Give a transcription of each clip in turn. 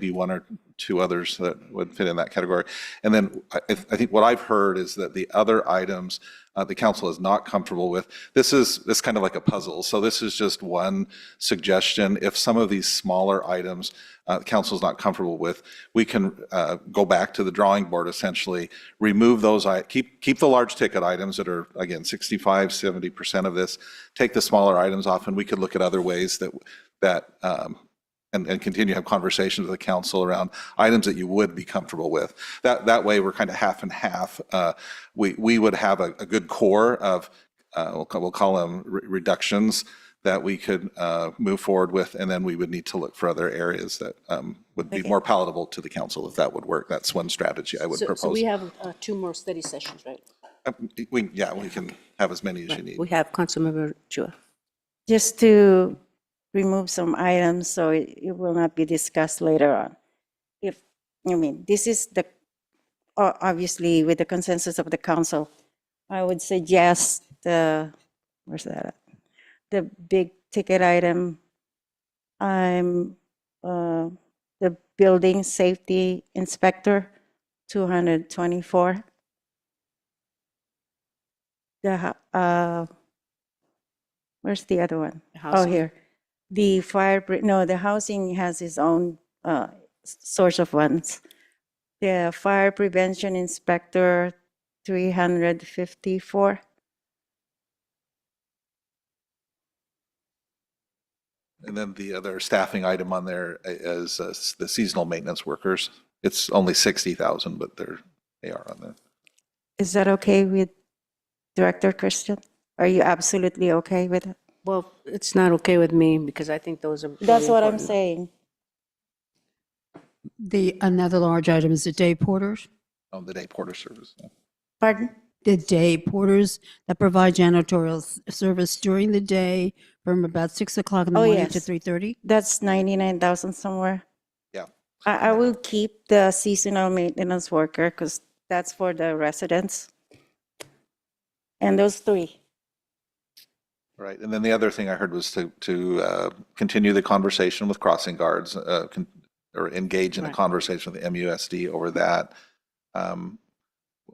be one or two others that would fit in that category. And then I, I think what I've heard is that the other items uh, the council is not comfortable with, this is, this is kind of like a puzzle. So this is just one suggestion. If some of these smaller items uh, the council's not comfortable with, we can uh, go back to the drawing board essentially, remove those, i- keep, keep the large ticket items that are, again, 65, 70% of this, take the smaller items off, and we could look at other ways that, that um, and, and continue to have conversations with the council around items that you would be comfortable with. That, that way, we're kind of half and half. Uh, We, we would have a, a good core of, uh, we'll, ca- we'll call them reductions that we could uh, move forward with, and then we would need to look for other areas that um, would be more palatable to the council if that would work. That's one strategy I would So, so propose. we have uh, two more study sessions, right? Uh, We, yeah, we can have as many as you need. We have Councilmember Chua. just to remove some items so it it will not be discussed later on. If, I mean, this is the, o- obviously with the consensus of the council, I would suggest uh, the, where's that at? The big ticket item, I'm, uh, the building safety inspector, 224. The, ho- uh, where's the other one? Oh, here. The fire, bri- no, the housing has its own uh, s- source of funds. The fire prevention inspector, 354. And then the other staffing item on there i- is uh, s- the seasonal maintenance workers. It's only 60,000, but they're, they are on there. Is that okay with Director Christian? Are you absolutely okay with it? Well, it's not okay with me because I think those are. really That's what I'm important. saying. The, another large item is the day porters, on the day porter service. yeah. Pardon? the day porters that provide janitorial s- service during the day from about 6 o'clock in the Oh, morning to yes. 3:30. That's 99,000 somewhere. Yeah. I, I will keep the seasonal maintenance worker because that's for the residents. And those three. Right, and then the other thing I heard was to, to uh, continue the conversation with crossing guards, uh, con- or engage in a Right. conversation with the MUSD over that. Um,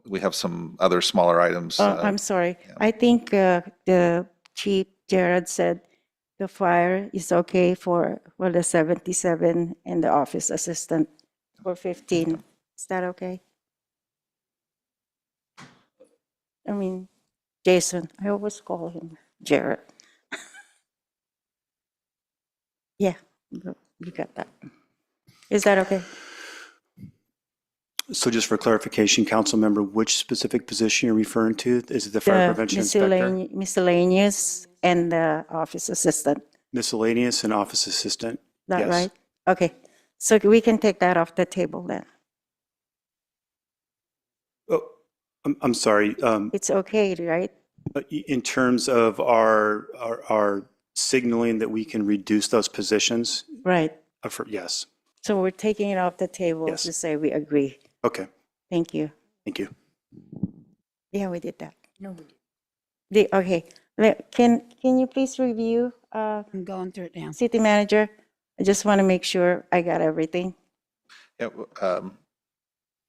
We have some other smaller items. Uh, uh, I'm sorry. yeah. I think uh, the chief Jared said the fire is okay for, well, the 77 and the office assistant for 15. Is that okay? I mean, Jason, I always call him Jared. Yeah, you you got that. Is that okay? So just for clarification, council member, which specific position you're referring to? Is it the fire The prevention inspector? miscellane- Miscellaneous and the office assistant. Miscellaneous and office assistant? that Yes. right? Okay, so we can take that off the table then. Oh, I'm, I'm sorry. um, It's okay, right? but i- In terms of our, our- our signaling that we can reduce those positions? Right. uh, for- Yes. So we're taking it off the table Yes. to say we agree. Okay, Thank you. thank you. Yeah, we did that. No, we didn't. The, okay, Le- can, can you please review, uh, I'm going through it now. city manager? I just want to make sure I got everything. yeah, w- um,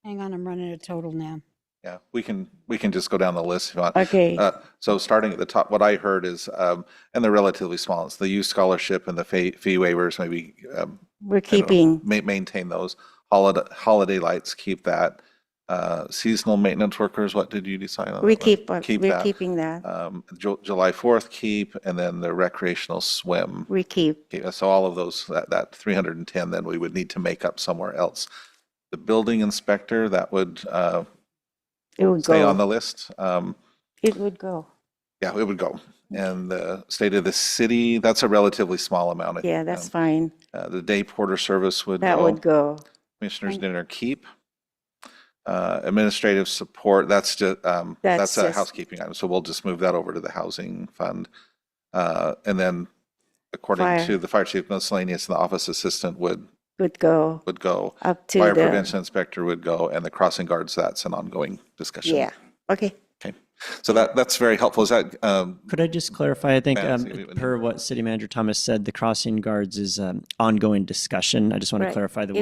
Hang on, I'm running a total now. Yeah, we can, we can just go down the list if you want. Okay, Uh, So starting at the top, what I heard is, um, and they're relatively small, it's the youth scholarship and the fa- fee waivers, maybe um, we're I don't know, keeping, ma- Maintain those. Holiday, holiday lights, keep that. Uh, Seasonal maintenance workers, what did you decide on? we that one? keep, uh, Keep we're that. keeping that. Um, Ju- July 4th, keep, and then the recreational swim. We keep, Okay, So all of those, that, that 310, then we would need to make up somewhere else. The building inspector, that would uh, it would stay on go. the list. Um, It would go. Yeah, it would go. And the state of the city, that's a relatively small amount. I Yeah, think, that's um, fine. uh, The day porter service would go. That would go. Commissioners Thank- dinner keep. Uh, Administrative support, that's just, That's that's a just- housekeeping item, so we'll just move that over to the housing fund. Uh, And then according Fire. to the fire chief miscellaneous, the office assistant would, Would go would go. up to the. Fire prevention inspector would go, and the crossing guards, that's an ongoing discussion. Yeah, okay. So that, that's very helpful. Is that, um, Could I just clarify? I think, um, Fancy, we would per what City Manager Thomas said, the crossing guards is um, ongoing discussion. I just want to Right. clarify the